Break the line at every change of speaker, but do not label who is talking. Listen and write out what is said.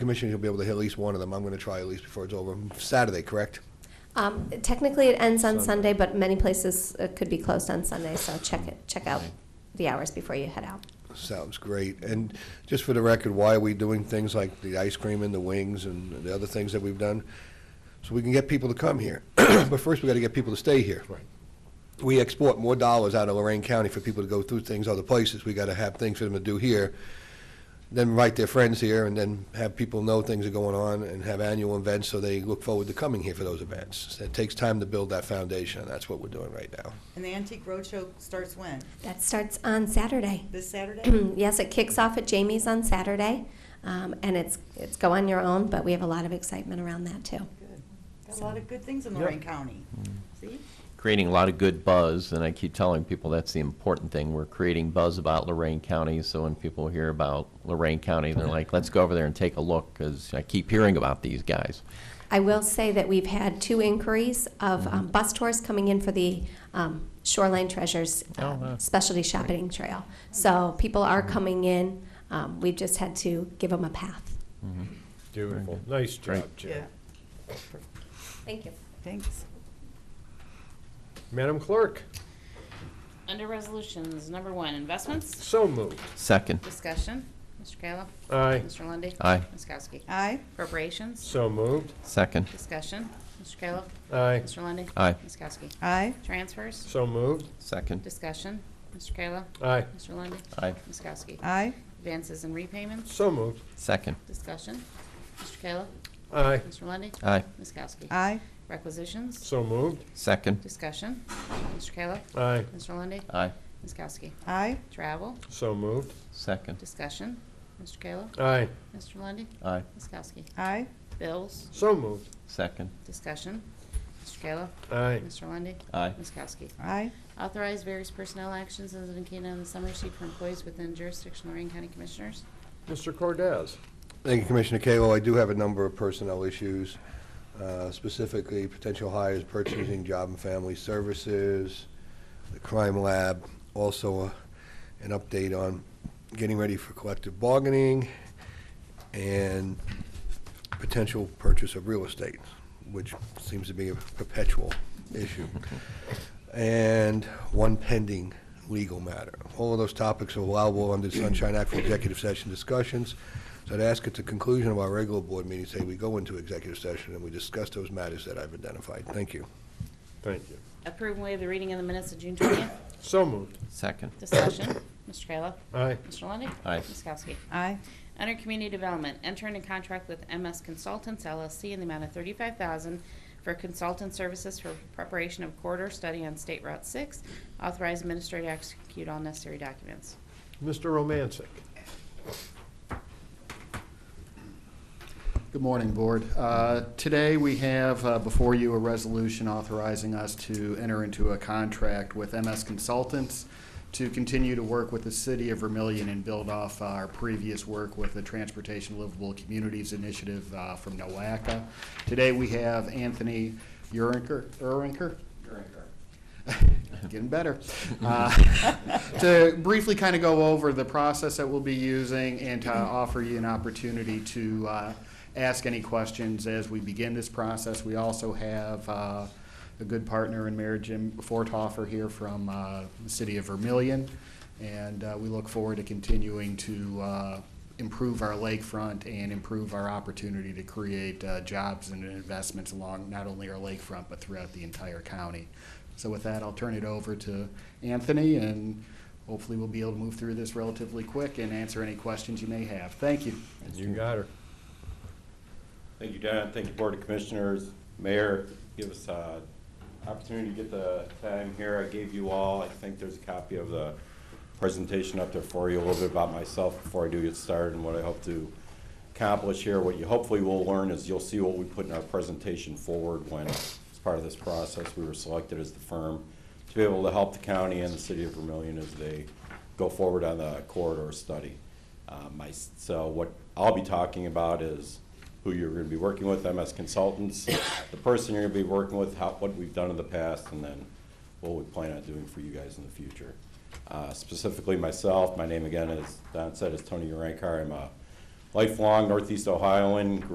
Commissioners, you'll be able to hit at least one of them. I'm going to try at least before it's over. Saturday, correct?
Um, Technically, it ends on
Sunday.
Sunday, but many places uh, could be closed on Sunday, so check it, check out
Right.
the hours before you head out.
Sounds great. And just for the record, why are we doing things like the ice cream and the wings and the other things that we've done? So we can get people to come here. But first, we got to get people to stay here. Right. We export more dollars out of Lorraine County for people to go through things other places. We got to have things for them to do here. Then invite their friends here and then have people know things are going on and have annual events so they look forward to coming here for those events. It takes time to build that foundation. That's what we're doing right now.
And the Antique Roadshow starts when?
That starts on Saturday.
This Saturday?
Yes, it kicks off at Jamie's on Saturday, um, and it's, it's go on your own, but we have a lot of excitement around that, too.
Good. Got a lot of good things in Lorraine County. See?
creating a lot of good buzz, and I keep telling people that's the important thing. We're creating buzz about Lorraine County, so when people hear about Lorraine County, they're like, let's go over there and take a look, because I keep hearing about these guys.
I will say that we've had two inquiries of
Mm-hmm.
um, bus tours coming in for the um, Shoreline Treasures uh,
Oh, wow. Mm-hmm.
Specialty Shopping Trail. So people are coming in. Um, We've just had to give them a path.
Beautiful. Nice job,
Great.
Jim.
Thank you.
Thanks.
Madam Clerk,
Under resolutions, number one, investments,
so moved.
Second,
discussion, Mr. Kayla.
Aye,
Mr. Lundy,
Aye.
Ms. Kowski.
Aye,
Appropriations,
so moved.
second,
discussion, Mr. Kayla.
Aye,
Mr. Lundy,
Aye.
Ms. Kowski.
aye,
Transfers,
so moved.
second,
discussion, Mr. Kayla.
Aye,
Mr. Lundy,
aye,
Ms. Kowski.
aye,
Advances and repayments,
so moved.
second,
discussion, Mr. Kayla.
Aye,
Mr. Lundy,
aye,
Ms. Kowski.
aye,
Requisitions,
so moved.
second,
discussion, Mr. Kayla.
Aye,
Mr. Lundy,
aye,
Ms. Kowski.
aye,
Travel,
so moved.
second,
discussion, Mr. Kayla.
Aye,
Mr. Lundy,
aye,
Ms. Kowski.
aye,
Bills,
so moved.
second,
Discussion. Mr. Kayla.
Aye,
Mr. Lundy,
aye,
Ms. Kowski.
aye,
Authorize various personnel actions as indicated on the summary sheet for employees within jurisdiction of Lorraine County Commissioners.
Mr. Cordez.
Thank you, Commissioner Kayla. I do have a number of personnel issues, uh, specifically potential hires, purchasing, job and family services, the crime lab, also uh, an update on getting ready for collective bargaining and potential purchase of real estate, which seems to be a perpetual issue, and one pending legal matter. All of those topics are allowable under the Sunshine Act for executive session discussions. So I'd ask at the conclusion of our regular board meeting, say we go into executive session and we discuss those matters that I've identified. Thank you.
Thank you.
Approve and waive the reading of the minutes of June twentieth.
So moved.
second,
Discussion. Mr. Kayla.
Aye,
Mr. Lundy,
Aye.
Ms. Kowski.
aye,
Under Community Development, enter into contract with MS Consultants LLC in the amount of thirty-five thousand for consultant services for preparation of corridor study on State Route six. Authorize administrator to execute all necessary documents.
Mr. Romancic.
Good morning, Board. Uh, Today, we have uh, before you a resolution authorizing us to enter into a contract with MS Consultants to continue to work with the City of Vermillion and build off our previous work with the Transportation Livable Communities Initiative uh, from NOACA. Today, we have Anthony Urinker, Urinker? Getting better. Uh, to briefly kind of go over the process that we'll be using and to offer you an opportunity to uh, ask any questions as we begin this process. We also have uh, a good partner in Mayor Jim Fortoffer here from uh, the city of Vermillion, and uh, we look forward to continuing to uh, improve our lakefront and improve our opportunity to create uh, jobs and investments along not only our lakefront, but throughout the entire county. So with that, I'll turn it over to Anthony, and hopefully we'll be able to move through this relatively quick and answer any questions you may have. Thank you.
You got her.
Thank you, Don. Thank you, Board of Commissioners, Mayor. Give us uh opportunity to get the time here. I gave you all, I think there's a copy of the presentation up there for you, a little bit about myself before I do get started and what I hope to accomplish here. What you hopefully will learn is you'll see what we put in our presentation forward when, as part of this process, we were selected as the firm to be able to help the county and the city of Vermillion as they go forward on the corridor study. Um, I s- so what I'll be talking about is who you're gonna be working with, MS consultants, the person you're gonna be working with, how, what we've done in the past, and then what we plan on doing for you guys in the future. Uh, specifically myself, my name again is, Don said, is Tony Urankar. I'm a lifelong Northeast Ohioan,